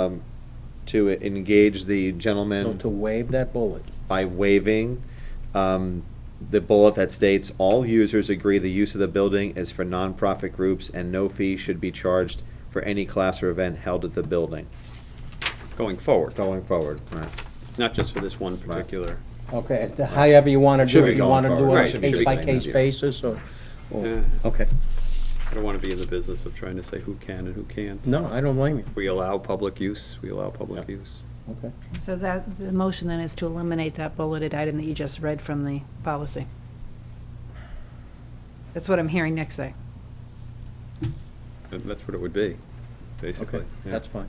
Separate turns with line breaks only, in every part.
um, to engage the
So
gentleman
to waive that bullet,
by waiving um, the bullet that states, "All users agree the use of the building is for nonprofit groups and no fee should be charged for any class or event held at the building,"
going forward,
going forward. Right.
not just for this one particular.
okay, and however you want to
Should
do
be
it, you
going
want to do
forward.
Right,
it
should
on
be
a
going
case-by-case
forward.
basis, or,
Oh.
or-
Yeah.
okay.
I don't want to be in the business of trying to say who can and who can't.
No, I don't blame you,
We allow public use, we allow public
Yeah.
use.
okay.
So that, the motion then is to eliminate that bulleted item that you just read from the policy. That's what I'm hearing next day.
And That's what it would be, basically.
Okay, that's fine,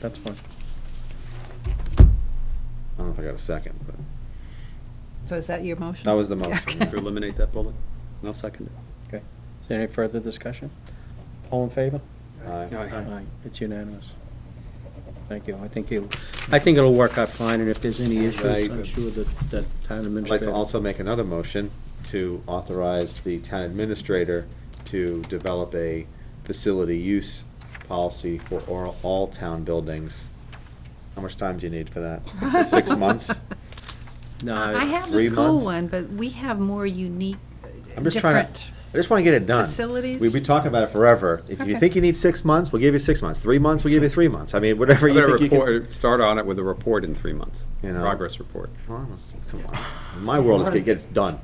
that's fine.
I don't know if I got a second, but
So is that your motion?
that was the motion.
To eliminate that bullet, and I'll second it.
Okay. Is there any further discussion? All in favor?
Aye.
Aye. It's unanimous. Thank you. I think you, I think it'll work out fine, and if there's any issues,
Right.
I'm sure that, that
I'd
town
like to
administrator.
also make another motion to authorize the town administrator to develop a facility use policy for all, all town buildings. How much time do you need for that? Six months?
No,
I
Uh,
have
Three
the school
months?
one, but we have more unique,
I'm just trying to,
different.
I just wanna get it done.
facilities?
We've been talking about it forever. If you
Okay.
think you need six months, we'll give you six months. Three months, we'll give you three months. I mean, whatever
I'm
you
gonna
think you can.
report, start on it with a report in three months,
You know.
progress report.
Come on, My world is, it gets done.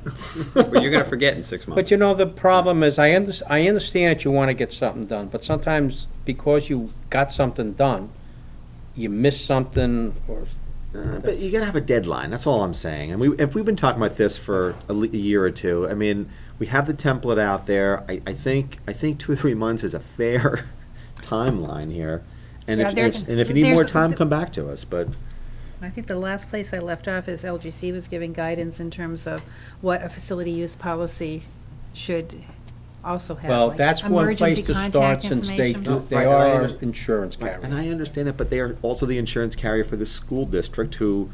But you're gonna forget in six months.
But you know, the problem is, I under, I understand that you want to get something done, but sometimes because you got something done, you miss something or.
Uh, But you gotta have a deadline. That's all I'm saying. And we, if we've been talking about this for a, le- a year or two, I mean, we have the template out there. I, I think, I think two or three months is a fair timeline here. And
Yeah,
if, and
there's-
if- and if you need more
there's-
time, come back to us. But
I think the last place I left off is LGC was giving guidance in terms of what a facility use policy should also have.
Well,
like
that's one place
emergency
to start
contact
since they,
information.
do- they
Right, and I
are
under-
insurance
And
carriers.
I understand that, but they are also the insurance carrier for the school district who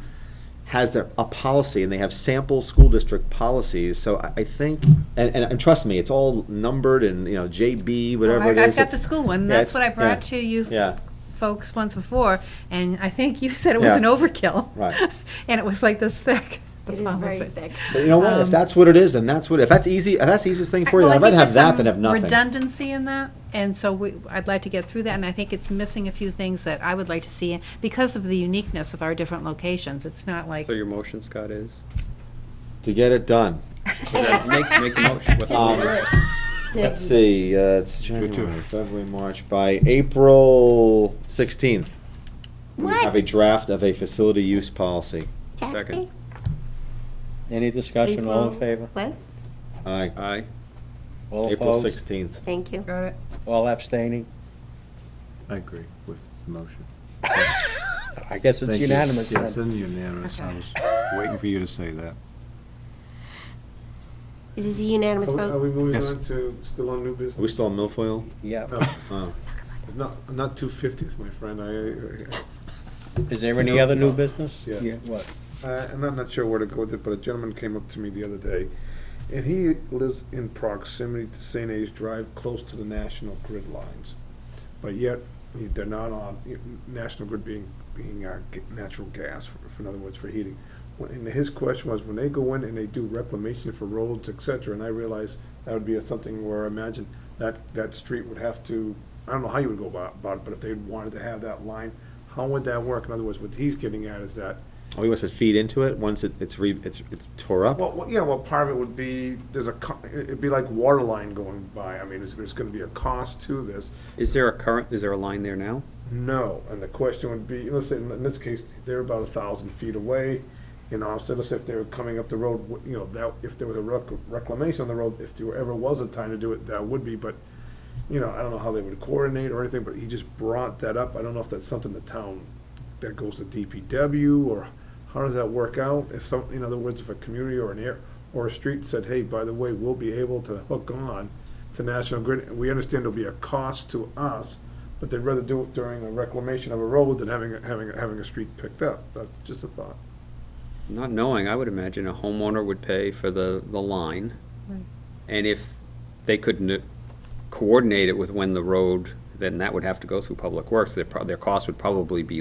has their, a policy and they have sample school district policies. So I, I think, and, and, and trust me, it's all numbered and, you know, JB, whatever
Oh, I-
it is.
I've got the
it's-
school one,
yeah, it's-
that's what I brought
yeah,
to you
Yeah,
folks once before, and I think you said it was
Yeah.
an overkill.
Right.
And it was like this thick. the
It is very
policy.
thick.
but you know what, if
Um,
that's what it is, then that's what, if that's easy, if that's the easiest thing for you,
Well, I
I'd rather
think
have
there's
that than have
some
nothing.
Redundancy in that, and so we, I'd like to get through that, and I think it's missing a few things that I would like to see, because of the uniqueness of our different locations, it's not like.
So your motion, Scott, is?
To get it done.
Yeah, Make, make the motion. What's the
Um,
motion?
Let's see, uh, it's January, February, March, by April sixteenth. We have a
What?
draft of a facility use policy.
Tax
Second.
day?
Any discussion, all in
April-
favor?
What?
Aye,
Aye.
All
April
opposed?
sixteenth.
Thank you.
Got it.
All abstaining?
I agree with the motion.
I guess it's
Thank you.
unanimous
Yes,
then.
it's unanimous. I
Okay.
was waiting for you to say that.
Is this a unanimous
Are we- Are
vote?
we moving
Yes.
on to, still on new
Are we
business?
still on milfoil?
Yeah.
No,
Oh.
it's not, not two fiftieth, my friend, I- I,
Is there any other new business?
Yes.
Yeah, What?
Uh, and I'm not sure where to go with it, but a gentleman came up to me the other day, and he lives in proximity to St. A's Drive, close to the national grid lines. But yet, he- they're not on, national grid being, being uh, g- natural gas, for- for, in other words, for heating. When- And his question was, when they go in and they do reclamation for roads, et cetera, and I realized that would be a something where, I imagine, that, that street would have to, I don't know how you would go about, about it, but if they wanted to have that line, how would that work? In other words, what he's getting at is that
Oh, he wants to feed into it once it, it's re, it's, it's tore up?
well, well, yeah, well, part of it would be, there's a, co- it'd be like water line going by. I mean, is there's gonna be a cost to this?
Is there a current, is there a line there now?
No, and the question would be, let's say, in this case, they're about a thousand feet away, you know, so let's say if they were coming up the road, wh- you know, that, if there was a rec- reclamation on the road, if there ever was a time to do it, that would be, but, you know, I don't know how they would coordinate or anything, but he just brought that up, I don't know if that's something the town, that goes to DPW, or how does that work out? If some, in other words, if a community or an air, or a street said, hey, by the way, we'll be able to hook on to National Grid, we understand there'll be a cost to us, but they'd rather do it during a reclamation of a road than having, a- having, a- having a street picked up. That's just a thought.
Not knowing, I would imagine a homeowner would pay for the, the line. And if they couldn't coordinate it with when the road then that would have to go through Public Works. Their, pro- their cost would probably be